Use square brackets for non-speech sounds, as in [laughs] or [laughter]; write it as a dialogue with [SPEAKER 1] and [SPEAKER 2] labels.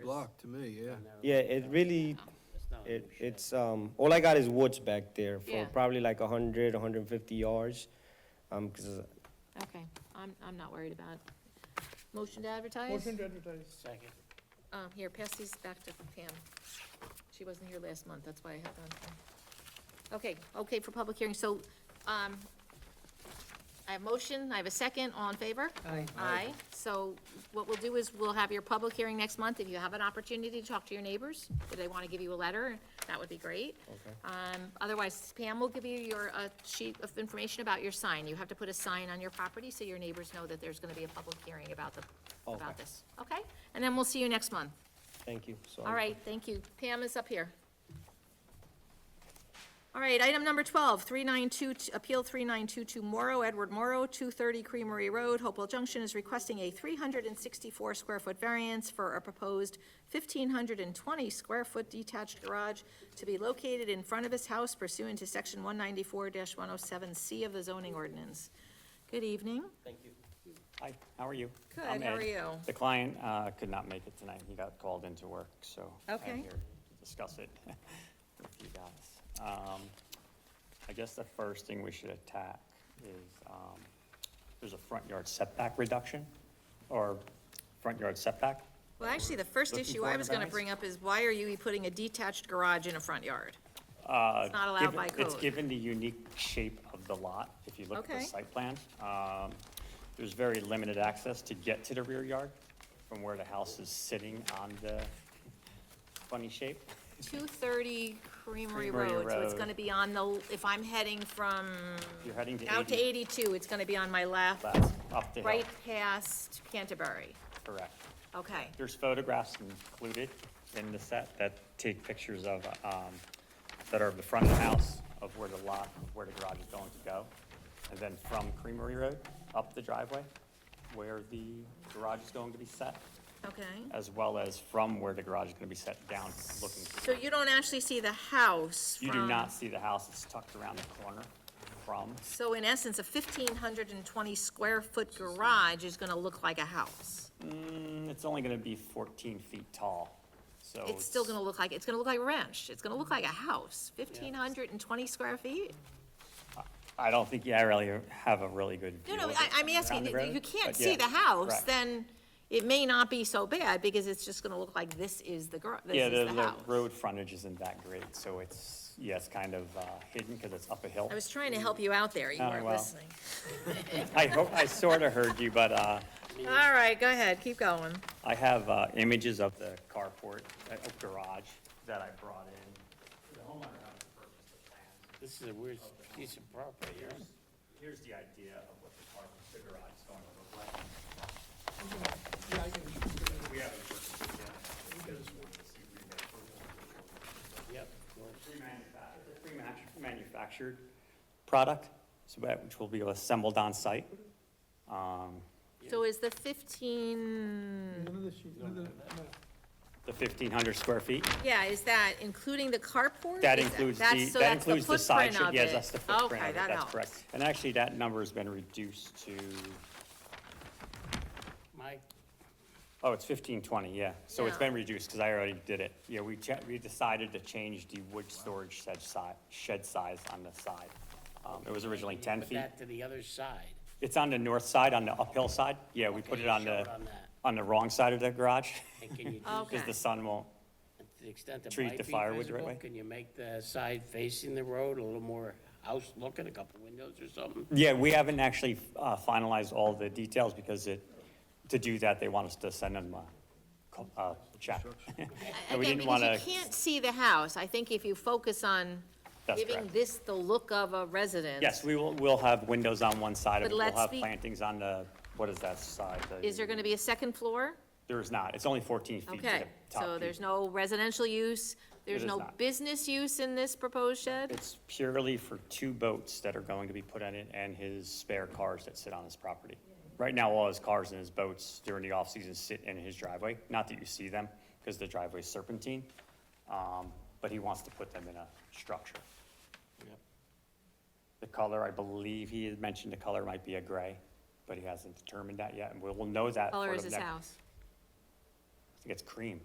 [SPEAKER 1] block to me, yeah.
[SPEAKER 2] Yeah, it really, it, it's, um, all I got is woods back there for
[SPEAKER 3] Yeah.
[SPEAKER 2] probably like a hundred, hundred and fifty yards. Um, 'cause
[SPEAKER 3] Okay, I'm, I'm not worried about it. Motion to advertise?
[SPEAKER 4] Motion to advertise.
[SPEAKER 5] Second.
[SPEAKER 3] Um, here, pass these back to Pam. She wasn't here last month, that's why I have them. Okay, okay, for public hearing, so, um, I have motion, I have a second, all in favor?
[SPEAKER 4] Aye.
[SPEAKER 3] Aye, so what we'll do is we'll have your public hearing next month, if you have an opportunity to talk to your neighbors, if they wanna give you a letter, that would be great. Okay. Um, otherwise, Pam will give you your, uh, sheet of information about your sign, you have to put a sign on your property so your neighbors know that there's gonna be a public hearing about the,
[SPEAKER 2] Okay.
[SPEAKER 3] about this, okay? And then we'll see you next month.
[SPEAKER 2] thank you. so-
[SPEAKER 3] All right, thank you. Pam is up here. All right, item number 12, 392, Appeal 3922 Morrow, Edward Morrow, 230 Creamery Road, Hopewell Junction, is requesting a 364-square-foot variance for a proposed 1,520-square-foot detached garage to be located in front of his house pursuant to Section 194-107C of the zoning ordinance. Good evening.
[SPEAKER 5] Thank you. Hi, how are you?
[SPEAKER 3] Good,
[SPEAKER 5] I'm
[SPEAKER 3] how
[SPEAKER 5] Ed.
[SPEAKER 3] are you?
[SPEAKER 5] The client uh, could not make it tonight. He got called into work, so. I'm
[SPEAKER 3] Okay.
[SPEAKER 5] here to Discuss it [laughs] with you guys. Um, I guess the first thing we should attack is, um, there's a front yard setback reduction or front yard setback.
[SPEAKER 3] Well, actually, the first
[SPEAKER 5] Looking
[SPEAKER 3] issue
[SPEAKER 5] for
[SPEAKER 3] I
[SPEAKER 5] an
[SPEAKER 3] was gonna
[SPEAKER 5] variance?
[SPEAKER 3] bring up is why are you putting a detached garage in a front yard?
[SPEAKER 5] Uh,
[SPEAKER 3] It's not allowed
[SPEAKER 5] given-
[SPEAKER 3] by
[SPEAKER 5] It's
[SPEAKER 3] code.
[SPEAKER 5] given the unique shape of the lot, if you look at the
[SPEAKER 3] Okay.
[SPEAKER 5] site plan. um, There's very limited access to get to the rear yard from where the house is sitting on the funny shape.
[SPEAKER 3] 230 Creamery
[SPEAKER 5] Creamery
[SPEAKER 3] Road, so it's
[SPEAKER 5] Road.
[SPEAKER 3] gonna be on the, if I'm heading from
[SPEAKER 5] You're heading to
[SPEAKER 3] out to
[SPEAKER 5] 80
[SPEAKER 3] 82, it's gonna be on my left,
[SPEAKER 5] left, up the hill,
[SPEAKER 3] right past Canterbury.
[SPEAKER 5] correct.
[SPEAKER 3] Okay,
[SPEAKER 5] There's photographs included in the set that take pictures of, um, that are of the front of the house, of where the lot, where the garage is going to go. And then from Creamery Road, up the driveway, where the garage is going to be set,
[SPEAKER 3] okay.
[SPEAKER 5] as well as from where the garage is gonna be set down, looking.
[SPEAKER 3] So you don't actually see the house
[SPEAKER 5] You do
[SPEAKER 3] from-
[SPEAKER 5] not see the house, it's tucked around the corner from,
[SPEAKER 3] So in essence, a 1,520 square foot garage is gonna look like a house.
[SPEAKER 5] mm, it's only gonna be fourteen feet tall, so.
[SPEAKER 3] It's still gonna look like, it's gonna look like a ranch, it's gonna look like a house, 1,520 square feet?
[SPEAKER 5] I don't think you really have a really good
[SPEAKER 3] No,
[SPEAKER 5] view.
[SPEAKER 3] no,
[SPEAKER 5] of it
[SPEAKER 3] I, I'm
[SPEAKER 5] around
[SPEAKER 3] asking,
[SPEAKER 5] the
[SPEAKER 3] if
[SPEAKER 5] road,
[SPEAKER 3] you can't
[SPEAKER 5] but
[SPEAKER 3] see
[SPEAKER 5] yeah,
[SPEAKER 3] the house,
[SPEAKER 5] correct.
[SPEAKER 3] then it may not be so bad, because it's just gonna look like this is the gar,
[SPEAKER 5] Yeah,
[SPEAKER 3] this
[SPEAKER 5] the,
[SPEAKER 3] is the
[SPEAKER 5] the
[SPEAKER 3] house.
[SPEAKER 5] road frontage isn't that great, so it's, yeah, it's kind of uh, hidden because it's up a hill.
[SPEAKER 3] I was trying to help you out there, you
[SPEAKER 5] Oh,
[SPEAKER 3] weren't
[SPEAKER 5] well.
[SPEAKER 3] listening.
[SPEAKER 5] I hope, I sort of heard you, but uh,
[SPEAKER 3] All right, go ahead, keep going.
[SPEAKER 5] I have uh, images of the carport, uh, of garage that I brought in. The homeowner had to purchase the plan.
[SPEAKER 6] This is a weird piece of property, here.
[SPEAKER 5] Here's the idea of what the carport, the garage is going to look like. We have a
[SPEAKER 6] Yep, of course.
[SPEAKER 5] pre-manufactured- pre-manu- manufactured product, so that, which will be assembled on site. Um,
[SPEAKER 3] So is the fifteen,
[SPEAKER 4] None of this, sheet, none of the- no.
[SPEAKER 5] The 1,500 square feet.
[SPEAKER 3] yeah, is that including the carport?
[SPEAKER 5] That
[SPEAKER 3] Is
[SPEAKER 5] includes
[SPEAKER 3] that's-
[SPEAKER 5] the,
[SPEAKER 3] so
[SPEAKER 5] that
[SPEAKER 3] that's
[SPEAKER 5] includes the side
[SPEAKER 3] footprint
[SPEAKER 5] shed,
[SPEAKER 3] of
[SPEAKER 5] yes,
[SPEAKER 3] it.
[SPEAKER 5] that's the footprint
[SPEAKER 3] Okay,
[SPEAKER 5] of it,
[SPEAKER 3] that
[SPEAKER 5] that's
[SPEAKER 3] helps.
[SPEAKER 5] correct. And actually, that number's been reduced to,
[SPEAKER 6] Mike,
[SPEAKER 5] oh, it's 1520, yeah. So it's
[SPEAKER 3] Yeah.
[SPEAKER 5] been reduced, because I already did it. Yeah, we, cha- we decided to change the wood storage shed size, shed size on the side. Um, It was originally
[SPEAKER 6] you
[SPEAKER 5] 10
[SPEAKER 6] put
[SPEAKER 5] feet.
[SPEAKER 6] that to the other side.
[SPEAKER 5] It's on the north side, on the uphill side. Yeah, we put
[SPEAKER 6] Okay,
[SPEAKER 5] it on
[SPEAKER 6] show
[SPEAKER 5] the,
[SPEAKER 6] it on that.
[SPEAKER 5] on the wrong side of the garage,
[SPEAKER 6] And can you do,
[SPEAKER 3] Okay.
[SPEAKER 6] to
[SPEAKER 5] because the sun won't,
[SPEAKER 6] the extent that
[SPEAKER 5] Treat
[SPEAKER 6] might
[SPEAKER 5] the
[SPEAKER 6] be
[SPEAKER 5] firewood the right
[SPEAKER 6] visible,
[SPEAKER 5] way?
[SPEAKER 6] can you make the side facing the road a little more house looking, a couple windows or something?
[SPEAKER 5] Yeah, we haven't actually uh, finalized all the details because it, to do that, they want us to send them a co- a check. [laughs] And we
[SPEAKER 3] Again,
[SPEAKER 5] didn't
[SPEAKER 3] because
[SPEAKER 5] want to,
[SPEAKER 3] you can't see the house, I think if you focus on
[SPEAKER 5] That's
[SPEAKER 3] giving
[SPEAKER 5] correct.
[SPEAKER 3] this the look of a residence.
[SPEAKER 5] yes, we will, we'll have windows on one side of
[SPEAKER 3] But
[SPEAKER 5] it. We'll
[SPEAKER 3] let's
[SPEAKER 5] have
[SPEAKER 3] be-
[SPEAKER 5] plantings on the, what is that side? The-
[SPEAKER 3] Is there gonna be a second floor?
[SPEAKER 5] There is not. It's only 14 feet to
[SPEAKER 3] Okay,
[SPEAKER 5] the top
[SPEAKER 3] so
[SPEAKER 5] peak.
[SPEAKER 3] there's no residential use, there's
[SPEAKER 5] is
[SPEAKER 3] no
[SPEAKER 5] not.
[SPEAKER 3] business use in this proposed shed?
[SPEAKER 5] It's purely for two boats that are going to be put on it and his spare cars that sit on his property. Right now, all his cars and his boats during the off-season sit in his driveway. Not that you see them, because the driveway's serpentine. Um, But he wants to put them in a structure.
[SPEAKER 6] Yep.
[SPEAKER 5] The color, I believe he had mentioned the color might be a gray, but he hasn't determined that yet. And we'll know that.
[SPEAKER 3] Color
[SPEAKER 5] for
[SPEAKER 3] is
[SPEAKER 5] the
[SPEAKER 3] his
[SPEAKER 5] next-
[SPEAKER 3] house?
[SPEAKER 5] I think it's cream.